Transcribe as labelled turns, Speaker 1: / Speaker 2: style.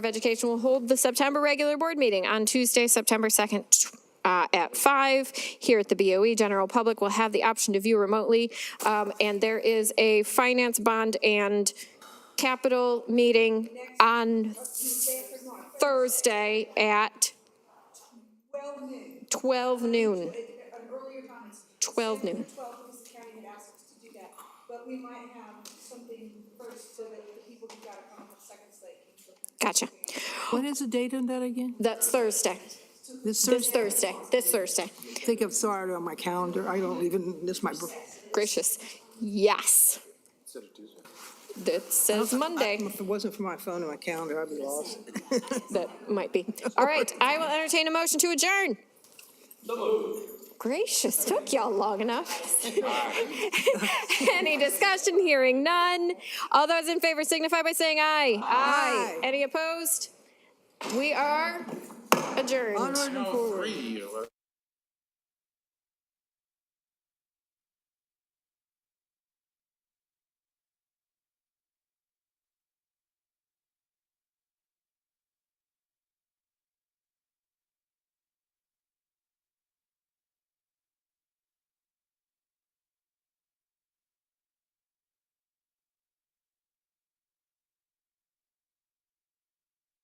Speaker 1: of Education will hold the September regular board meeting on Tuesday, September 2nd tw- uh, at 5 here at the BOE. General public will have the option to view remotely. Um, And there is a finance bond and capital meeting on Thursday at 12 noon. 12 noon.
Speaker 2: Well, because the county had asked us to do that, but we might have something first so that the people who got it on the second slate can
Speaker 1: Gotcha.
Speaker 2: still.
Speaker 3: What is the date on that again?
Speaker 1: That's Thursday.
Speaker 3: This
Speaker 1: This
Speaker 3: Thursday?
Speaker 1: Thursday, this Thursday.
Speaker 3: I think I've saw it on my calendar. I don't even, this my.
Speaker 1: Gracious. Yes. That says Monday.
Speaker 3: If it wasn't for my phone and my calendar, I'd be lost.
Speaker 1: That might be. All right, I will entertain a motion to adjourn. Gracious, took y'all long enough. Any discussion? Hearing none. All those in favor signify by saying aye. Aye. Any opposed? We are adjourned. Oh,
Speaker 3: Onward and forward.
Speaker 4: Three, or-